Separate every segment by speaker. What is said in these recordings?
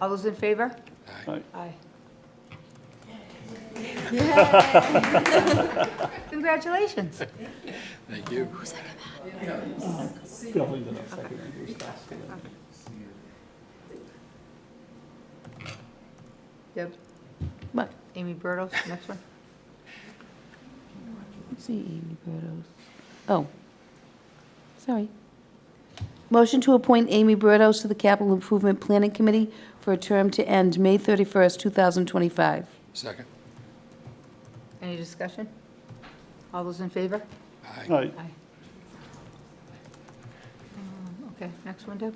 Speaker 1: All those in favor?
Speaker 2: Aye.
Speaker 1: Aye. Congratulations.
Speaker 3: Thank you.
Speaker 2: Bill, you know, second and who's last, and then-
Speaker 1: Deb? What? Amy Burdos, next one.
Speaker 4: See Amy Burdos. Oh, sorry. Motion to appoint Amy Burdos to the Capital Improvement Planning Committee for a term to end May 31st, 2025.
Speaker 3: Second.
Speaker 1: Any discussion? All those in favor?
Speaker 3: Aye.
Speaker 2: Aye.
Speaker 1: Aye. Um, Okay, next one, Deb?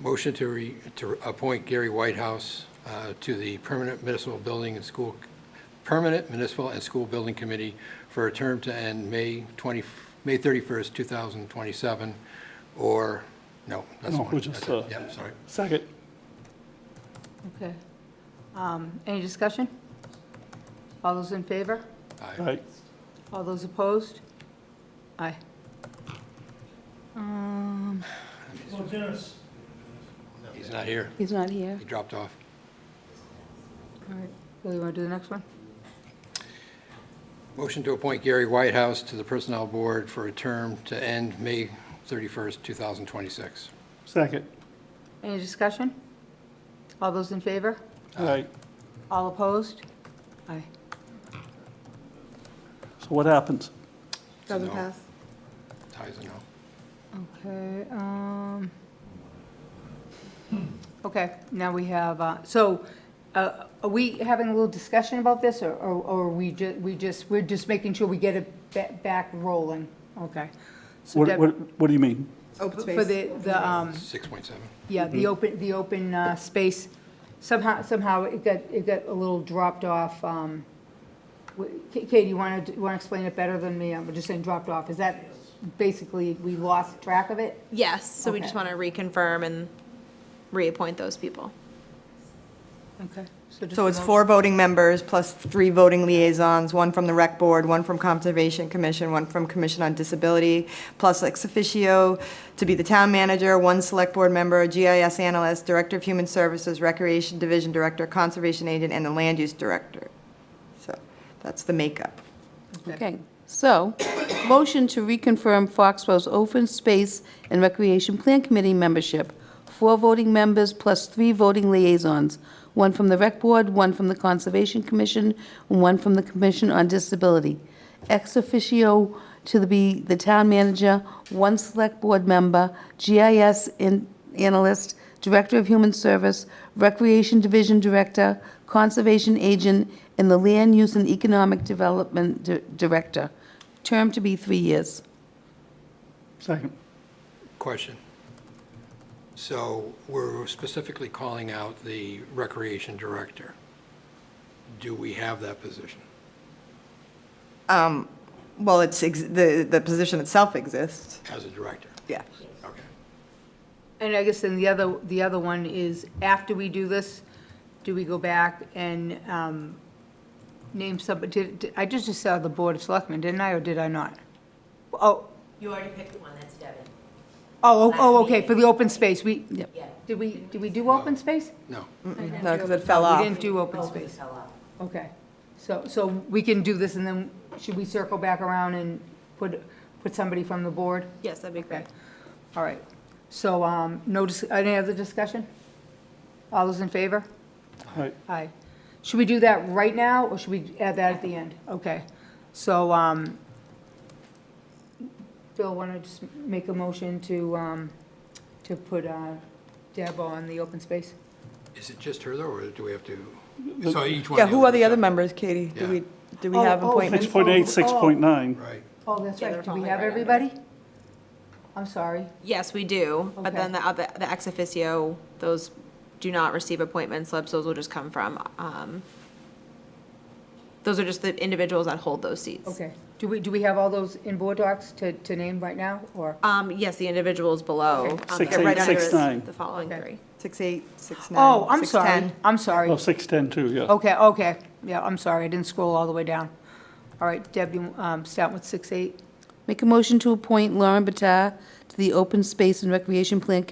Speaker 3: Motion to re, to appoint Gary Whitehouse uh, to the Permanent Municipal Building and School, Permanent Municipal and School Building Committee for a term to end May 20, May 31st, 2027, or, no, that's
Speaker 2: No,
Speaker 3: one.
Speaker 2: we're just,
Speaker 3: That's it.
Speaker 2: uh,
Speaker 3: Yeah, sorry.
Speaker 2: Second.
Speaker 1: Okay. Um, Any discussion? All those in favor?
Speaker 3: Aye.
Speaker 2: Aye.
Speaker 1: All those opposed? Aye. Um,
Speaker 3: He's not here.
Speaker 4: He's not here.
Speaker 3: He dropped off.
Speaker 1: all right, Bill, you want to do the next one?
Speaker 3: Motion to appoint Gary Whitehouse to the Personnel Board for a term to end May 31st, 2026.
Speaker 2: Second.
Speaker 1: Any discussion? All those in favor?
Speaker 2: Aye.
Speaker 1: All opposed? Aye.
Speaker 2: So what happens?
Speaker 3: Doesn't pass. Ties a no.
Speaker 1: Okay, um, okay, now we have, uh, so, uh, are we having a little discussion about this, or, or or are we ju, we just, we're just making sure we get it ba- back rolling? Okay. So
Speaker 2: What,
Speaker 1: Deb- oh,
Speaker 2: what, what do you mean?
Speaker 5: Open
Speaker 1: For
Speaker 5: space.
Speaker 1: the, the, um,
Speaker 3: 6.7.
Speaker 1: yeah,
Speaker 5: Mm-hmm.
Speaker 1: the open, the open, uh, space, somehow, somehow it got, it got a little dropped off, um, w- Ka- Katie, you wanna, you wanna explain it better than me? I'm just saying dropped off, is that basically, we lost track of it?
Speaker 6: Yes, so we just
Speaker 1: Okay.
Speaker 6: want to reconfirm and reappoint those people.
Speaker 1: Okay. just
Speaker 5: So
Speaker 1: a
Speaker 5: it's
Speaker 1: mo-
Speaker 5: four voting members plus three voting liaisons, one from the rec board, one from Conservation Commission, one from Commission on Disability, plus ex officio to be the town manager, one select board member, GIS analyst, director of human services, recreation division director, conservation agent, and the land use director. So that's the makeup.
Speaker 4: Okay, so, motion to reconfirm Foxborough's Open Space and Recreation Plan Committee membership. Four voting members plus three voting liaisons, one from the Rec Board, one from the Conservation Commission, and one from the Commission on Disability. Ex officio to the- be the town manager, one Select Board member, GIS in- analyst, Director of Human Service, Recreation Division Director, Conservation Agent, and the Land Use and Economic Development Di- Director. Term to be three years.
Speaker 2: Second.
Speaker 3: Question. So we're specifically calling out the recreation director. Do we have that position?
Speaker 5: Um, Well, it's, ex- the, the position itself exists,
Speaker 3: As a director?
Speaker 5: yeah.
Speaker 3: Okay.
Speaker 1: And I guess then the other, the other one is, after we do this, do we go back and um, name somebody, did- did- I just just saw the Board of Selectmen, didn't I, or did I not? Oh,
Speaker 7: You already picked one, that's Devin.
Speaker 1: oh, oh, oh, okay, for the open space, we,
Speaker 4: Yep.
Speaker 7: Yeah.
Speaker 1: did we, did we do open space?
Speaker 3: No.
Speaker 5: No, because it fell
Speaker 1: We
Speaker 5: off.
Speaker 1: didn't do open
Speaker 7: Both of
Speaker 1: space,
Speaker 7: us fell out.
Speaker 1: okay. So, so we can do this, and then should we circle back around and put, put somebody from the board?
Speaker 6: Yes, that'd be
Speaker 1: Okay,
Speaker 6: great.
Speaker 1: all right. So, um, no, dis- any other discussion? All those in favor?
Speaker 2: Aye.
Speaker 1: Aye. Should we do that right now, or should we add that at the end? Okay, so, um, Bill, want to just make a motion to, um, to put uh, Deb on the open space?
Speaker 3: Is it just her though, or do we have to? So each one.
Speaker 5: Yeah, who are the other
Speaker 3: members?
Speaker 5: members, Katie? Do we, do we
Speaker 1: Oh,
Speaker 5: have
Speaker 1: oh,
Speaker 5: appointments?
Speaker 2: Six point eight, six point nine.
Speaker 3: Right.
Speaker 1: Oh, that's
Speaker 6: Yeah,
Speaker 1: right,
Speaker 6: they're
Speaker 1: do we
Speaker 6: falling
Speaker 1: have
Speaker 6: right under.
Speaker 1: everybody? I'm sorry,
Speaker 6: Yes, we do, but then the other, the ex officio, those do not receive appointment slips, those will just come from, um, those are just the individuals that hold those seats.
Speaker 1: okay. Do we, do we have all those in board docs to, to name right now, or?
Speaker 6: Um, yes, the individuals below.
Speaker 1: Okay.
Speaker 6: um,
Speaker 2: Six,
Speaker 6: they're right
Speaker 5: eight,
Speaker 6: under
Speaker 2: six,
Speaker 6: the-
Speaker 2: nine.
Speaker 6: The following
Speaker 1: Okay.
Speaker 6: three.
Speaker 5: Six eight, six nine.
Speaker 1: Oh, I'm
Speaker 5: 6'10".
Speaker 1: sorry, I'm sorry.
Speaker 2: Oh, six ten too, yeah.
Speaker 1: Okay, okay, yeah, I'm sorry, I didn't scroll all the way down. All right, Deb, you, um, start with six, eight?
Speaker 4: Make a motion to appoint Lauren Batar to the Open Space and Recreation Plan